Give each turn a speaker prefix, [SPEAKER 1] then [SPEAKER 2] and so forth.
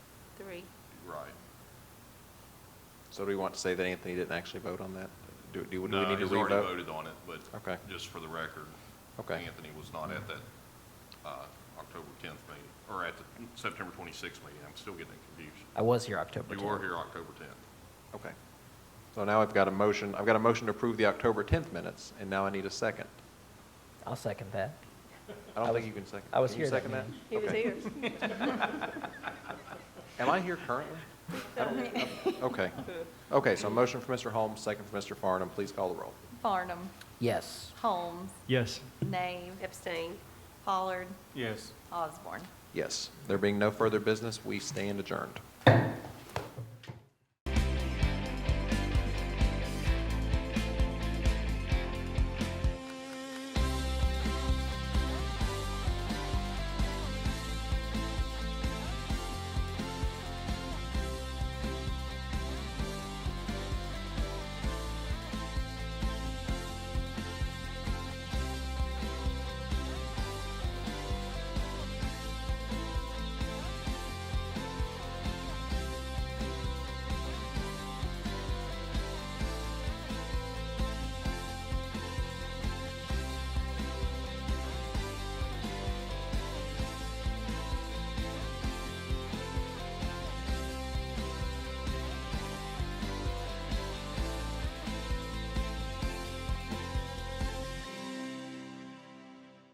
[SPEAKER 1] So do we want to say that Anthony didn't actually vote on that? Do, do we do we
[SPEAKER 2] No,
[SPEAKER 1] need to
[SPEAKER 2] he's already
[SPEAKER 1] revote?
[SPEAKER 2] voted on it, but
[SPEAKER 1] Okay.
[SPEAKER 2] just for the record,
[SPEAKER 1] Okay.
[SPEAKER 2] Anthony was not at that uh, October 10th meeting, or at the September 26th meeting. I'm still getting it confused.
[SPEAKER 3] I was here October 10th.
[SPEAKER 2] You were here October 10th.
[SPEAKER 1] Okay. So now I've got a motion, I've got a motion to approve the October 10th minutes, and now I need a second.
[SPEAKER 3] I'll second that.
[SPEAKER 1] I
[SPEAKER 3] I
[SPEAKER 1] don't think
[SPEAKER 3] was-
[SPEAKER 1] you can second.
[SPEAKER 3] I was
[SPEAKER 1] Can you
[SPEAKER 3] here that
[SPEAKER 1] second that?
[SPEAKER 3] meeting.
[SPEAKER 4] He was
[SPEAKER 1] Okay.
[SPEAKER 4] here.
[SPEAKER 1] Am I here currently? I don't- Okay. Okay, so a motion for Mr. Holmes, second for Mr. Farnum. Please call the roll.
[SPEAKER 4] Farnum.
[SPEAKER 3] Yes.
[SPEAKER 4] Holmes.
[SPEAKER 5] Yes.
[SPEAKER 4] Nave. Abstain. Pollard.
[SPEAKER 5] Yes.
[SPEAKER 4] Osborne.
[SPEAKER 1] Yes. There being no further business, we stand adjourned.